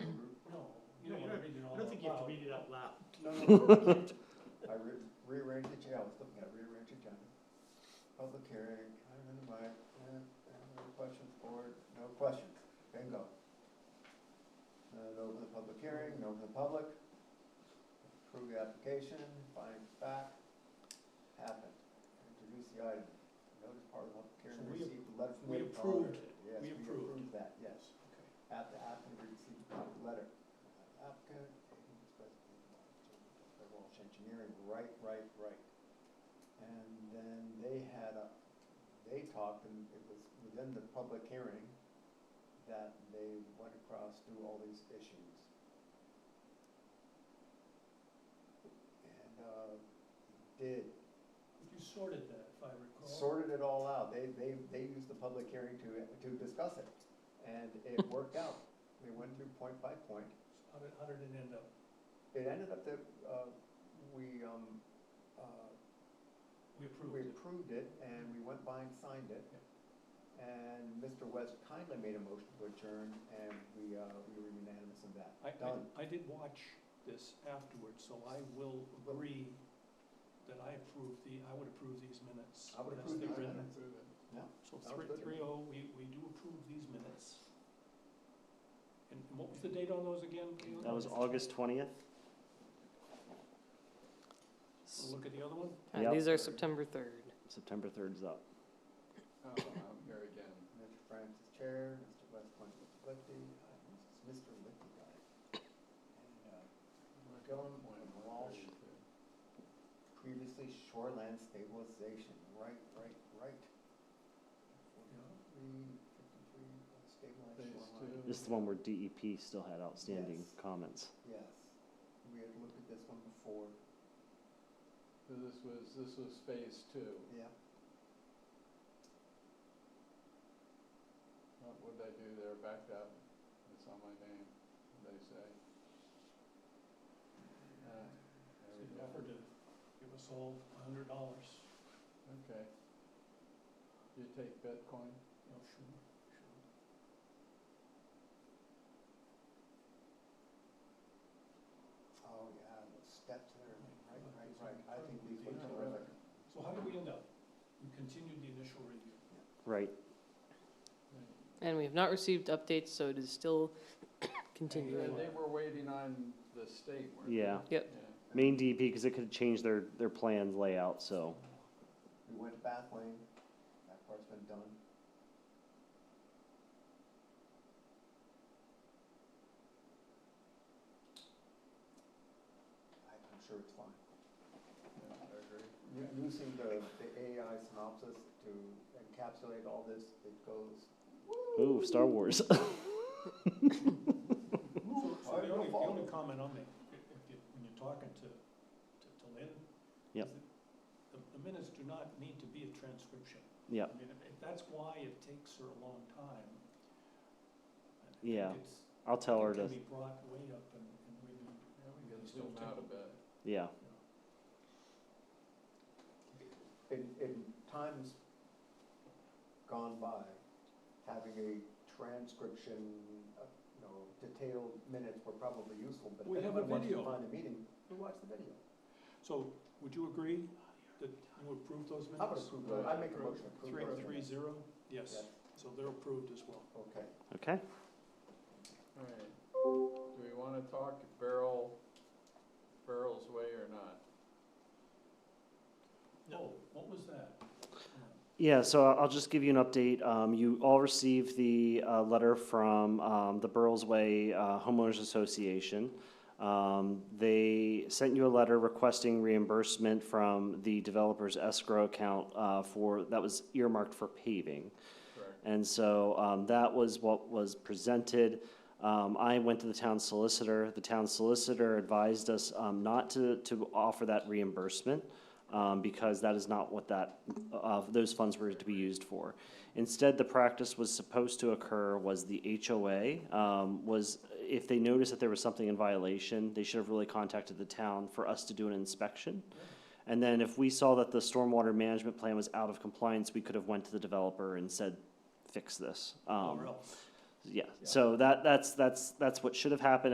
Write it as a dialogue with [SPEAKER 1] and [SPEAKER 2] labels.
[SPEAKER 1] read it out loud.
[SPEAKER 2] No, no, I re- rearranged the agenda, I was looking at rearranged agenda. Public hearing, I'm in the mic, uh, uh, no questions or no questions, bingo. Uh, no for the public hearing, no for the public. Approve the application, find fact, happened. Introduce the item, notice part of the public hearing,
[SPEAKER 1] So we
[SPEAKER 2] received a letter from
[SPEAKER 1] we
[SPEAKER 2] the
[SPEAKER 1] approved-
[SPEAKER 2] auditor. Yes,
[SPEAKER 1] we
[SPEAKER 2] we
[SPEAKER 1] approved.
[SPEAKER 2] approved that, yes. At the applicant received a copy letter. Applicant, they're all engineering, right, right, right. And then they had a, they talked, and it was within the public hearing, that they went across through all these issues. And, uh, did,
[SPEAKER 1] You sorted that, if I recall.
[SPEAKER 2] sorted it all out. They, they, they used the public hearing to, to discuss it. And it worked out. We went through point by point.
[SPEAKER 1] How did, how did it end up?
[SPEAKER 2] It ended up that, uh, we, um, uh,
[SPEAKER 1] We approved
[SPEAKER 2] we
[SPEAKER 1] it.
[SPEAKER 2] approved it and we went by and signed it. And Mr. West kindly made a motion to adjourn and we, uh, we were unanimous in that.
[SPEAKER 1] I,
[SPEAKER 2] Done.
[SPEAKER 1] I, I did watch this afterwards, so I will agree that I approve the, I would approve these minutes.
[SPEAKER 2] I would
[SPEAKER 1] as
[SPEAKER 2] approve
[SPEAKER 1] they're
[SPEAKER 2] these
[SPEAKER 1] written.
[SPEAKER 2] minutes.
[SPEAKER 1] So
[SPEAKER 2] Sounds
[SPEAKER 1] three,
[SPEAKER 2] good to me.
[SPEAKER 1] three oh, we, we do approve these minutes. And and what was the date on those again? Leon?
[SPEAKER 3] That was August twentieth.
[SPEAKER 1] We'll Look at the other one?
[SPEAKER 3] And Yep. these
[SPEAKER 4] are September third.
[SPEAKER 3] September third's up.
[SPEAKER 4] Oh, I'm here again.
[SPEAKER 2] Mr. Francis Chair, Mr. West went with Lippy, uh, Mr. Lippy guy. And, uh, Going with Walsh. previously shoreland stabilization, right, right, right. Forty-three, fifty-three, stabilized
[SPEAKER 4] Phase
[SPEAKER 2] shoreline.
[SPEAKER 4] two.
[SPEAKER 3] This is the one where DEP still had outstanding
[SPEAKER 2] Yes.
[SPEAKER 3] comments.
[SPEAKER 2] Yes, we had looked at this one before,
[SPEAKER 4] So This was, this was phase two.
[SPEAKER 2] yeah.
[SPEAKER 4] What would they do there? Backed up. It's on my name, they say. Ah,
[SPEAKER 1] So
[SPEAKER 4] There we
[SPEAKER 1] you
[SPEAKER 4] go.
[SPEAKER 1] offered to give us all a hundred dollars.
[SPEAKER 4] Okay. You take Bitcoin?
[SPEAKER 1] You know, sure, sure.
[SPEAKER 2] Oh, yeah, the steps there, right,
[SPEAKER 1] Right,
[SPEAKER 2] right,
[SPEAKER 1] these
[SPEAKER 2] right,
[SPEAKER 1] are
[SPEAKER 2] I think these look
[SPEAKER 1] Yeah.
[SPEAKER 2] terrific.
[SPEAKER 1] So how did we end up? We continued the initial review.
[SPEAKER 3] Right,
[SPEAKER 5] And we have not received updates, so it is still
[SPEAKER 4] And
[SPEAKER 5] continuing.
[SPEAKER 4] they were waiting on the state, weren't they?
[SPEAKER 3] Yeah.
[SPEAKER 5] Yep.
[SPEAKER 4] Yeah.
[SPEAKER 3] main E DEP, because it could have changed their, their plans layout, so.
[SPEAKER 2] We went to Bath Lane, that part's been done. I, I'm sure it's fine.
[SPEAKER 4] I agree.
[SPEAKER 2] U- Using the, the AI synopsis to encapsulate all this, it goes,
[SPEAKER 3] Ooh, Star Wars.
[SPEAKER 1] So, so
[SPEAKER 2] I
[SPEAKER 1] the
[SPEAKER 2] don't
[SPEAKER 1] only, the
[SPEAKER 2] follow.
[SPEAKER 1] only comment I'll make, if if you, when you're talking to, to, to Lynn. is that
[SPEAKER 3] Yep.
[SPEAKER 1] The, the minutes do not need to be a transcription.
[SPEAKER 3] Yep.
[SPEAKER 1] I mean, if, if that's why it takes her a long time. I think
[SPEAKER 3] Yeah,
[SPEAKER 1] it's-
[SPEAKER 3] I'll tell her
[SPEAKER 1] it
[SPEAKER 3] to,
[SPEAKER 1] Can be brought way up and, and maybe,
[SPEAKER 4] Yeah, we
[SPEAKER 1] You
[SPEAKER 4] can
[SPEAKER 1] still
[SPEAKER 4] zoom out a
[SPEAKER 1] take-
[SPEAKER 4] bit.
[SPEAKER 3] yeah,
[SPEAKER 2] in, in times gone by, having a transcription, uh, you know, detailed minutes were probably useful, but
[SPEAKER 1] We
[SPEAKER 2] if
[SPEAKER 1] have a
[SPEAKER 2] anyone wants to
[SPEAKER 1] video.
[SPEAKER 2] find a meeting, we watch the video.
[SPEAKER 1] so would you agree that you approve those
[SPEAKER 2] I would
[SPEAKER 1] minutes?
[SPEAKER 2] approve those, I make a motion. to approve
[SPEAKER 1] Three,
[SPEAKER 2] those
[SPEAKER 1] three,
[SPEAKER 2] minutes.
[SPEAKER 1] zero, yes,
[SPEAKER 2] Yes,
[SPEAKER 1] so they're approved as well.
[SPEAKER 2] okay.
[SPEAKER 3] okay.
[SPEAKER 4] All right. Do we want to talk Barrel, Barrel's Way or not?
[SPEAKER 1] Oh, what was that?
[SPEAKER 3] Yeah, so I'll just give you an update. Um, you all received the, uh, letter from, um, the Burlesway Way uh, Homeowners Association. Um, they sent you a letter requesting reimbursement from the developer's escrow account, uh, for, that was earmarked for paving.
[SPEAKER 4] Correct.
[SPEAKER 3] And so um, that was what was presented. Um, I went to the town solicitor. The town solicitor advised us um, not to, to offer that reimbursement um, because that is not what that, uh, those funds were to be used for. Instead, the practice was supposed to occur was the HOA um, was, if they noticed that there was something in violation, they should have really contacted the town for us to do an inspection. And then if we saw that the stormwater management plan was out of compliance, we could have went to the developer and said, fix this. Um,
[SPEAKER 1] Or else?
[SPEAKER 3] Yeah, so that, that's, that's, that's what should have happened.